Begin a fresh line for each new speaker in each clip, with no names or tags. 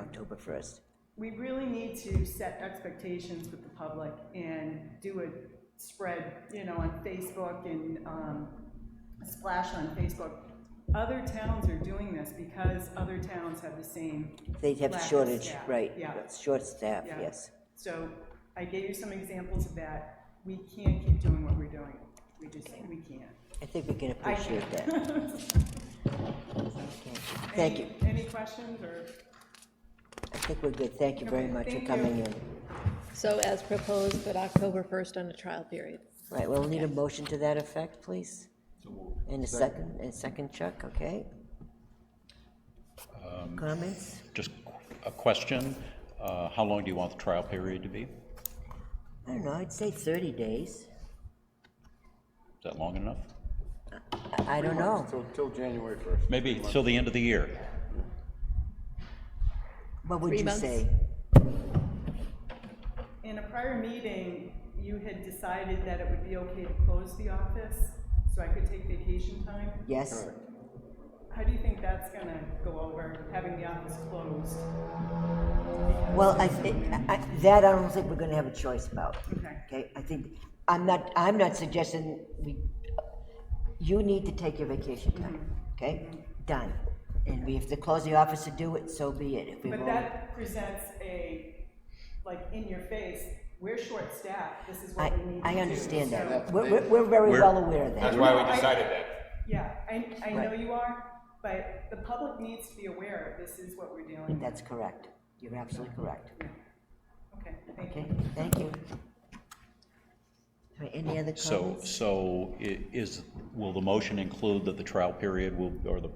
October first.
We really need to set expectations with the public and do a spread, you know, on Facebook and, um, splash on Facebook. Other towns are doing this because other towns have the same,
They have
Lack of
shortage,
staff,
right,
yeah.
short staff,
Yeah.
yes.
so I gave you some examples of that. We can't keep doing what we're doing. We just, we can't.
I think we can
I
appreciate that. Okay. Thank you.
Any- Any questions or?
I think we're good. Thank you very
Okay,
much for
thank
coming
you.
in.
So as proposed, but October 1st on a trial period.
Right, we'll need a motion to that effect, please. And a second, and a second, Chuck, okay? Comments?
Just a question, uh, how long do you want the trial period to be? Is
I don't know, I'd say 30 days.
that long enough?
I- I don't know.
Till, till January first.
Maybe till the end of the year?
What would
Three
you
months.
say?
In a prior meeting, you had decided that it would be okay to close the office, so I could take vacation time.
Yes?
How do you think that's gonna go over, having the office closed?
Well, I, thi- I- I- that I don't think we're gonna have a choice about.
Okay.
Okay, I think, I'm not, I'm not suggesting we, you need to take your vacation time,
Mm-hmm.
okay? Done. And we have to close the office to do it, so be it. If we
But
won't-
that presents a, like, in your face, we're short-staffed, this is
I,
what we need to do.
I understand
So-
that. We're, we're- we're very
We're-
well aware of
That's
that.
why we decided that.
Yeah, I, I know
Right.
you are, but the public needs to be aware, this is what we're dealing with.
That's correct. You're absolutely correct.
Okay, thank you.
Okay, thank you. All right, Any other
So,
comments?
so i- is, will the motion include that the trial period will, or the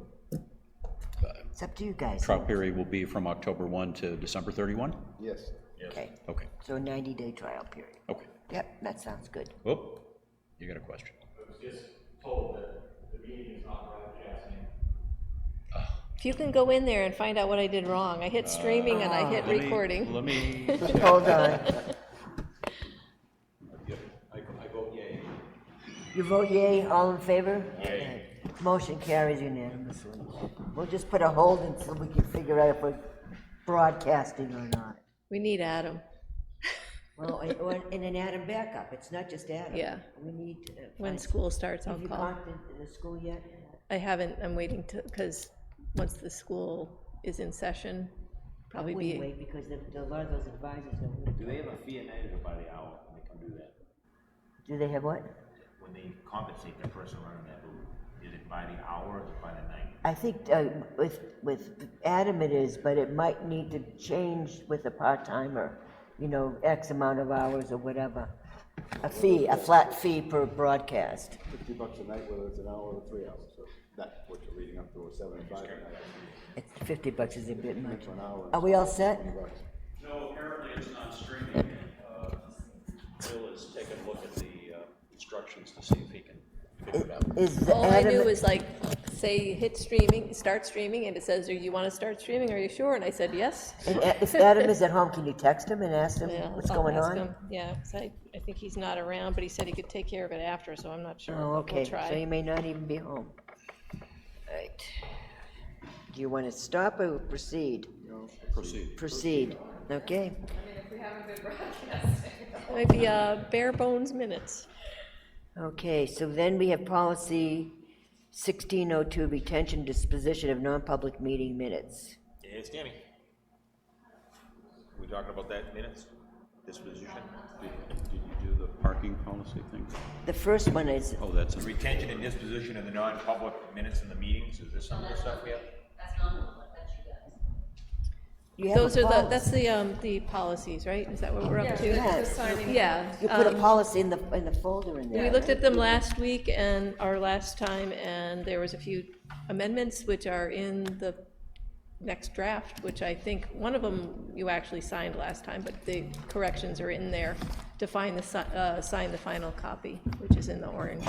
It's up to you guys.
trial period will be from October 1 to December 31?
Yes.
Okay,
Okay,
so a 90-day trial period.
okay.
Yep, that sounds good.
Whoop, you got a question?
If you can go in there and find out what I did wrong, I hit streaming and I hit
Uh, Let me-
recording.
Let me, uh,
Hold on. You vote yay, all in favor? Yay. Motion carries unanimously. We'll just put a hold until we can figure out if we're broadcasting or not.
We need Adam.
Well, and- or- and then add 'em back up. it's not just Adam.
Yeah.
We need. to uh, find-
When school starts, I'll
Have you
call.
contacted the school yet?
I haven't, I'm waiting to, because once the school is in session, probably
We
be,
wait, because the- the- a lot of those advisors don't.
Do they have a fee at Niagara by the hour when they come do that?
Do they have what?
When they compensate the person running that booth, is it by the hour or is it by the night?
I think uh, with, with Adam it is, but it might need to change with a part-timer, you know, X amount of hours or whatever. A fee, a flat fee per broadcast.
Fifty bucks a night, whether it's an hour or three hours, so that's what you're leading up to, or seven and five. and that's
It's- Fifty bucks is a bit much.
For an hour.
Are we all set?
Twenty bucks.
No, apparently it's not streaming. Uh, Bill is taking a look at the uh, instructions to see if he can figure it out.
Is the
all I knew
Adam,
was like, say, hit streaming, start streaming, and it says, do you want to start streaming? Are you sure? And I said, yes.
and A- if Adam is at home, can you text him and ask him
Yeah,
what's
I'll
going
ask
on?
him. Yeah, 'cause I, I think he's not around, but he said he could take care of it after, so I'm not sure. but
Oh, okay,
We'll
so he
try.
may not even be home. Right. Do you want to stop or proceed? Proceed. Proceed, okay.
Might be uh, bare bones minutes.
Okay, so then we have policy 1602, retention disposition of non-public meeting minutes.
It's Danny. We talking about that minutes, disposition?
did you do the parking policy thing?
The first one is,
Oh, that's,
The retention and disposition of the non-public minutes in the meetings, is this some of the stuff we have?
you have a
Those are the,
policy.
that's the, um, the policies, right? Is that what we're up to?
Yeah.
Yeah.
You put a
um,
policy in the, in the folder in there.
We looked at them last week and our last time, and there was a few amendments which are in the next draft, which I think, one of them you actually signed last time, but the corrections are in there to find the, si- uh, sign the final copy, which is in the orange.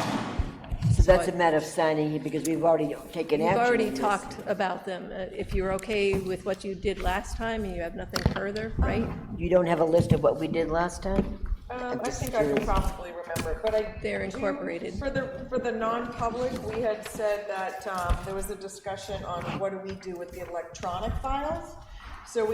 So that's a matter of signing it because we've already taken action.
We've already
on this.
talked about them. Uh, If you're okay with what you did last time and you have nothing further, right?
You don't have a list of what we did last time?
Um, I
just
think I can
curious.
probably remember, but I.
They're
do-
incorporated.
For the, for the non-public, we had said that, um, there was a discussion on what do we do with the electronic files? So we